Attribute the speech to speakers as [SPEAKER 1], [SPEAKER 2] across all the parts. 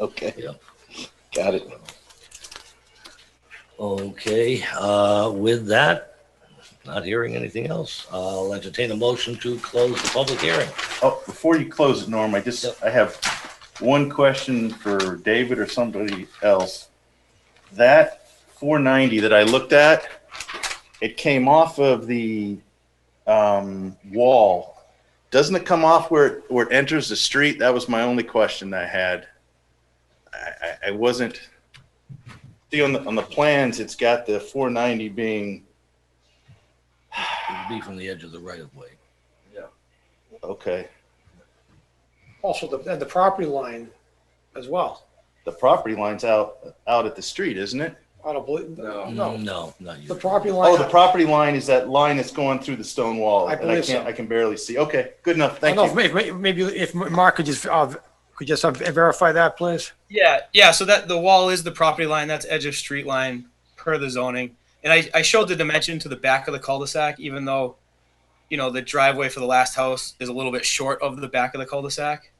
[SPEAKER 1] Okay.
[SPEAKER 2] Yeah.
[SPEAKER 1] Got it.
[SPEAKER 2] Okay, uh, with that, not hearing anything else, I'll entertain a motion to close the public hearing.
[SPEAKER 3] Oh, before you close it, Norm, I just,
[SPEAKER 2] Yep.
[SPEAKER 3] I have one question for David or somebody else. That four ninety that I looked at, it came off of the um, wall. Doesn't it come off where it, where it enters the street? That was my only question I had. I, I, I wasn't. See on the on the plans, it's got the four ninety being
[SPEAKER 2] It would be from the edge of the right of way.
[SPEAKER 3] okay.
[SPEAKER 4] Also, the, and the property line as well.
[SPEAKER 3] The property line's out out at the street, isn't it?
[SPEAKER 4] I don't believe,
[SPEAKER 5] No.
[SPEAKER 4] no,
[SPEAKER 2] Mm, No, not you.
[SPEAKER 4] the property
[SPEAKER 3] Oh, the
[SPEAKER 4] line,
[SPEAKER 3] property line is that line that's going through the stone wall.
[SPEAKER 4] I
[SPEAKER 3] and I
[SPEAKER 4] believe
[SPEAKER 3] can't,
[SPEAKER 4] so.
[SPEAKER 3] I can barely see. Okay, good enough.
[SPEAKER 4] I
[SPEAKER 3] Thank
[SPEAKER 4] don't
[SPEAKER 3] you.
[SPEAKER 4] know, if- may- maybe if Mark could just, uh, could just uh, verify that, please?
[SPEAKER 5] Yeah, yeah. So that the wall is the property line. That's edge of street line per the zoning. And I, I showed the dimension to the back of the cul-de-sac, even though, you know, the driveway for the last house is a little bit short of the back of the cul-de-sac.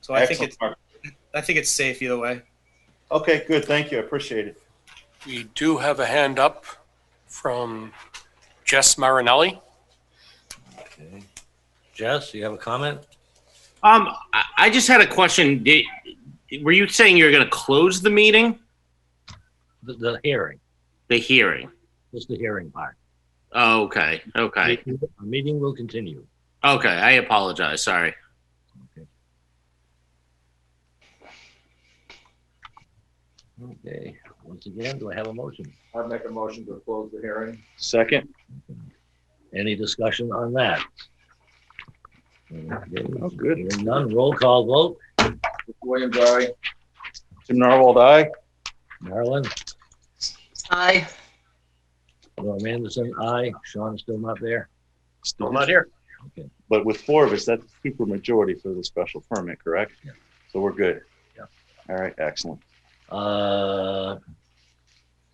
[SPEAKER 5] So I think
[SPEAKER 3] Excellent,
[SPEAKER 5] it's
[SPEAKER 3] Mark.
[SPEAKER 5] I think it's safe either way.
[SPEAKER 3] Okay, good. Thank you. I appreciate it.
[SPEAKER 6] We do have a hand up from Jess Marinelli.
[SPEAKER 2] Okay. Jess, you have a comment?
[SPEAKER 7] Um, I, I just had a question. Did, were you saying you're going to close the meeting,
[SPEAKER 2] The, the hearing,
[SPEAKER 7] the hearing?
[SPEAKER 2] just the hearing part.
[SPEAKER 7] Oh, okay. Okay.
[SPEAKER 2] The meeting will continue.
[SPEAKER 7] Okay. I apologize. Sorry.
[SPEAKER 2] Okay, once again, do I have a motion?
[SPEAKER 5] I'd make a motion to close the hearing.
[SPEAKER 3] Second.
[SPEAKER 2] Any discussion on that? Oh,
[SPEAKER 3] good.
[SPEAKER 2] None, roll call vote.
[SPEAKER 5] Williams, aye.
[SPEAKER 3] Jim Narwhal, aye.
[SPEAKER 2] Marilyn,
[SPEAKER 8] Aye.
[SPEAKER 2] Norm Anderson, aye. Sean is still not there.
[SPEAKER 6] Still not here.
[SPEAKER 3] But with four of us, that's super majority for the special permit, correct?
[SPEAKER 2] Yeah.
[SPEAKER 3] So we're good.
[SPEAKER 2] Yeah.
[SPEAKER 3] All right, excellent.
[SPEAKER 2] Uh,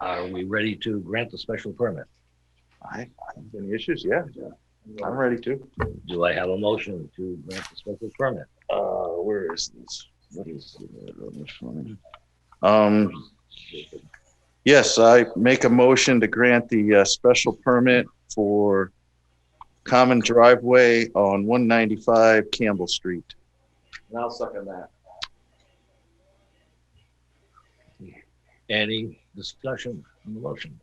[SPEAKER 2] Are we ready to grant the special permit?
[SPEAKER 3] I, I don't have any issues. Yeah. I'm ready to.
[SPEAKER 2] Do I have a motion to grant the special permit?
[SPEAKER 3] Uh, where is this? What is it on this one? Um, yes, I make a motion to grant the uh, special permit for common driveway on one ninety-five Campbell Street.
[SPEAKER 5] And I'll second that.
[SPEAKER 2] Any discussion on the motion?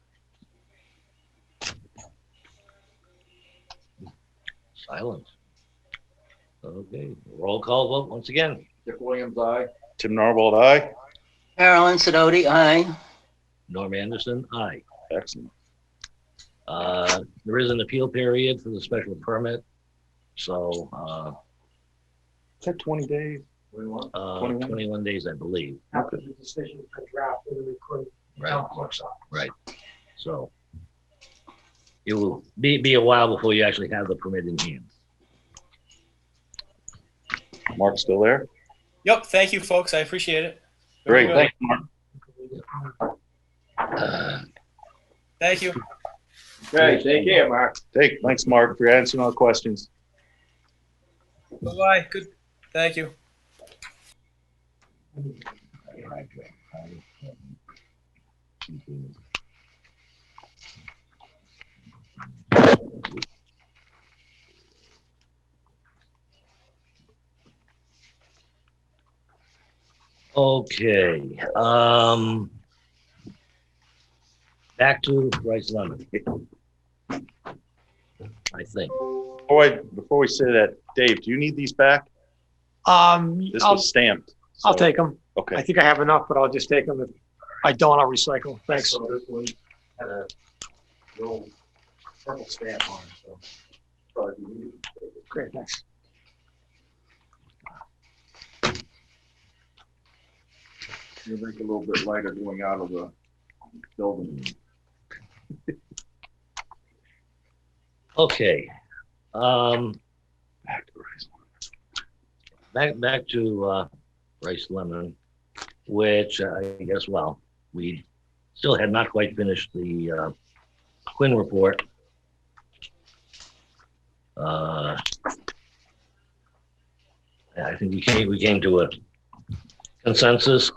[SPEAKER 2] Silence. Okay, roll call vote once again.
[SPEAKER 5] Dick Williams, aye.
[SPEAKER 3] Tim Narvald, aye.
[SPEAKER 8] Marilyn Sidoti, aye.
[SPEAKER 2] Norm Anderson, aye.
[SPEAKER 3] Excellent.
[SPEAKER 2] Uh, There is an appeal period for the special permit, so uh,
[SPEAKER 3] Is that twenty days?
[SPEAKER 2] uh,
[SPEAKER 3] 21?
[SPEAKER 2] 21 days, I believe.
[SPEAKER 4] After the decision, I drafted and recorded.
[SPEAKER 2] Right, so it will be, be a while before you actually have the permit in hand.
[SPEAKER 3] Mark's still there?
[SPEAKER 5] Yep. Thank you, folks. I appreciate it. Very
[SPEAKER 3] Great,
[SPEAKER 5] good.
[SPEAKER 3] thanks, Mark.
[SPEAKER 2] Uh,
[SPEAKER 5] Thank you.
[SPEAKER 2] Okay, take care,
[SPEAKER 5] Mark.
[SPEAKER 3] Hey, thanks, Mark, for answering all the questions.
[SPEAKER 5] Bye. Good. Thank you.
[SPEAKER 2] Okay, um, back to Bryce Lemon. I think.
[SPEAKER 3] Before I, before we say that, Dave, do you need these back?
[SPEAKER 4] Um,
[SPEAKER 3] This
[SPEAKER 4] I'll,
[SPEAKER 3] was stamped.
[SPEAKER 4] I'll
[SPEAKER 3] so-
[SPEAKER 4] take them. I
[SPEAKER 3] Okay,
[SPEAKER 4] think I have enough, but I'll just take them. If I don't, I'll recycle. Thanks. Great, thanks.
[SPEAKER 5] You think a little bit lighter going out of the building.
[SPEAKER 2] Okay. Um, back, back to, uh, Rice Lemon, which I guess, well, we still had not quite finished the, uh, Quinn report. Uh, I think we came, we came to a consensus